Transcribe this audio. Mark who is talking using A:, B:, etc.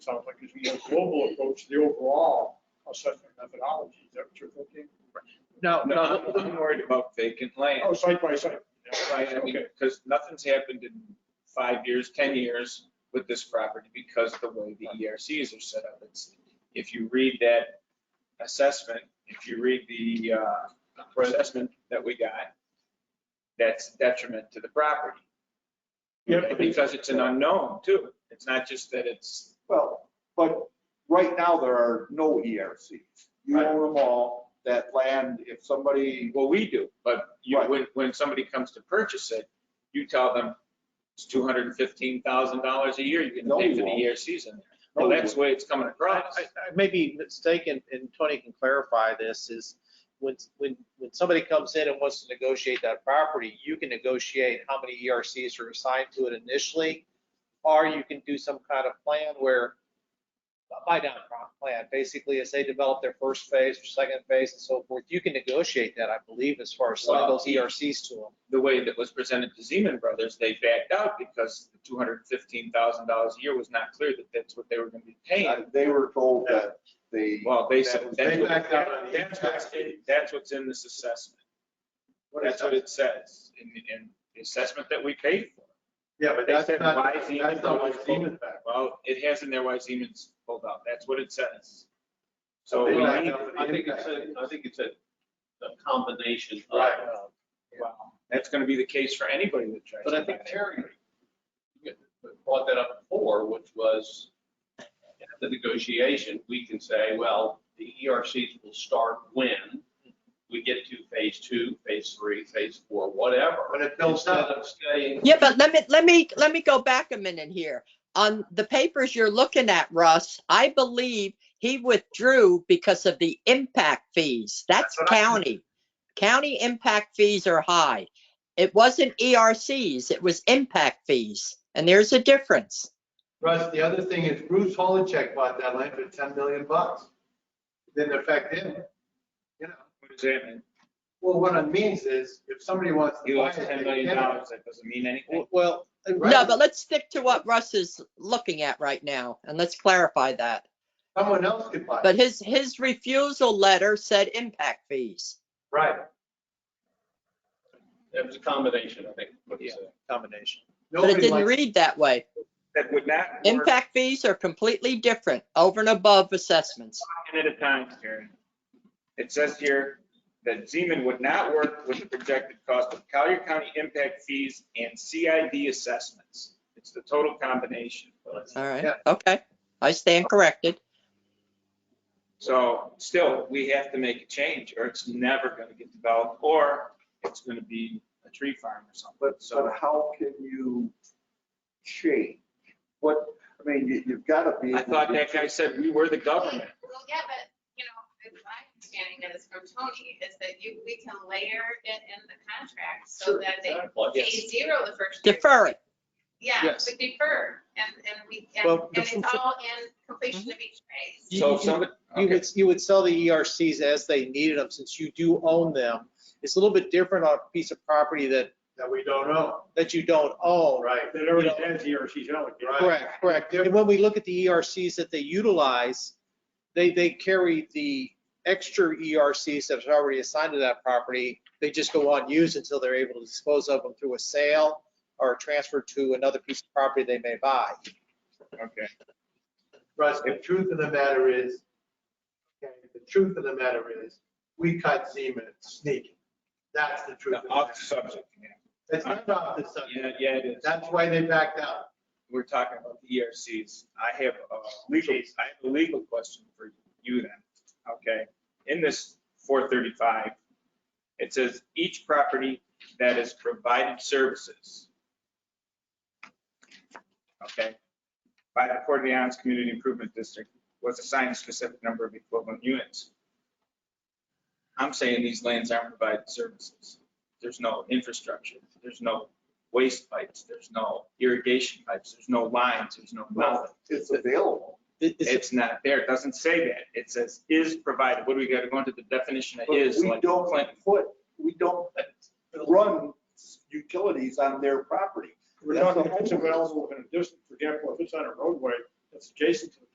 A: a global approach, to the overall assessment methodology, is that what you're thinking?
B: No, no, Oh, I'm worried about vacant land,
A: Oh, site by site. yeah,
B: right? I mean,
A: okay.
B: because nothing's happened in five years, 10 years with this property because the way the ERCs are set up. It's, if you read that assessment, if you read the uh, assessment that we got, that's detriment to the property.
A: Yeah, but-
B: Because it's an unknown too. It's not just that it's,
C: Well, but right now, there are no ERCs. You
B: Right.
C: own them all, that land, if somebody,
B: well, we do, but you,
C: Right.
B: when, when somebody comes to purchase it, you tell them it's two hundred and fifteen thousand dollars a year you're
C: No,
B: gonna pay
C: we
B: for the
C: won't.
B: ERCs in there.
C: No,
B: Well,
C: we
B: that's the way it's coming
D: I
B: across.
D: I- I may be mistaken, and Tony can clarify this, is when, when, when somebody comes in and wants to negotiate that property, you can negotiate how many ERCs are assigned to it initially, or you can do some kind of plan where, a buy down plan, basically, as they develop their first phase or second phase and so forth, you can negotiate that, I believe, as far as some of
B: Well,
D: those ERCs to them.
B: The way that was presented to Zeman Brothers, they backed out because the two hundred and fifteen thousand dollars a year was not clear that that's what they were gonna be paying.
C: uh, They were told that they.
B: Well, they said,
C: That-
B: that's
C: they
B: what-
C: backed out on the
B: that's what's, in- that's what's in this assessment. That's what it says in, in the assessment that we paid for.
A: Yeah,
B: But they said why Zeman Brothers pulled out. Well, it has in there why Zeman's pulled out. That's what it says. So uh,
A: They
B: we
A: backed
B: need,
A: out.
E: I think it's a, I think it's a a combination of.
A: Right.
B: uh, well, that's gonna be the case for anybody that tries.
E: But I
B: to
E: think
B: buy it.
E: Terry brought that up before, which was at the negotiation, we can say, well, the ERCs will start when we get to phase two, phase three, phase four, whatever.
A: But it builds
E: Instead
A: up.
E: of staying.
F: Yeah, but let me, let me, let me go back a minute here. On the papers you're looking at, Russ, I believe he withdrew because of the impact fees. That's
A: That's what I-
F: county. County impact fees are high. It wasn't ERCs, it was impact fees, and there's a difference.
A: Russ, the other thing is Bruce Holichek bought that land for 10 million bucks. Didn't affect him, you know.
B: What does that mean?
A: Well, what it means is if somebody wants
B: He
A: to buy it.
B: lost ten
A: they
B: million
A: can.
B: dollars, that doesn't mean anything.
D: Well,
F: No, but let's stick to what Russ is looking at right now, and let's clarify that.
A: Someone else could buy it.
F: But his, his refusal letter said impact fees.
A: Right.
E: It was a combination, I think. what he said.
D: combination.
F: But it
A: Nobody
F: didn't
A: likes,
F: read that way.
B: That would not work
F: Impact fees are completely different, over and above assessments.
B: at a time, Karen. It says here that Zeman would not work with the projected cost of Collier County impact fees and CID assessments. It's the total combination.
F: All right,
A: Yeah.
F: okay. I stand corrected.
B: So still, we have to make a change or it's never gonna get developed or it's gonna be a tree farm or something.
C: But,
B: So
C: but how can you change? What, I mean, you, you've got to be.
B: I
C: able
B: thought
C: to-
B: that guy said we were the government.
G: Well, yeah, but, you know, my understanding is from Tony is that you, we can layer it in the contract so that they
E: Well,
G: pay zero the first year.
F: Defer it.
G: Yeah,
D: Yes.
G: we defer and, and we, and
D: Well,
G: and it's
D: defer-
G: all in completion of each phase.
D: You-
B: So
D: you-
B: if somebody.
D: You
B: okay.
D: would, you would sell the ERCs as they needed them, since you do own them. It's a little bit different on a piece of property that,
A: that we don't know.
D: that you don't own.
A: Right. That already has the ERC's allocated.
D: Correct, correct. And when we look at the ERCs that they utilize, they, they carry the extra ERCs that are already assigned to that property. They just go unused until they're able to dispose of them through a sale or transfer to another piece of property they may buy.
B: Okay.
A: Russ, the truth of the matter is, okay, the truth of the matter is, we cut Zeman sneaking. That's the truth. of the
B: Off the
A: matter.
B: subject. yeah.
A: It's not off the subject.
B: Yeah, yeah, it is.
A: That's why they backed out.
B: we're talking about the ERCs. I have a legal, I have a legal question for you then, okay? In this four thirty-five, it says each property that is provided services. Okay? By the Port of Alliance Community Improvement District was assigned a specific number of equivalent units. I'm saying these lands aren't provided services. There's no infrastructure, there's no waste pipes, there's no irrigation pipes, there's no lines, there's no nothing.
C: It's available.
D: It- it's-
B: It's not there, it doesn't say that, it says is provided, what do we gotta go into the definition of
C: But
B: is,
C: we
B: like
C: don't
B: Clinton?
C: put, we don't run utilities on their property.
A: We're talking, it's available in a distance, for example, if it's on a roadway that's adjacent to the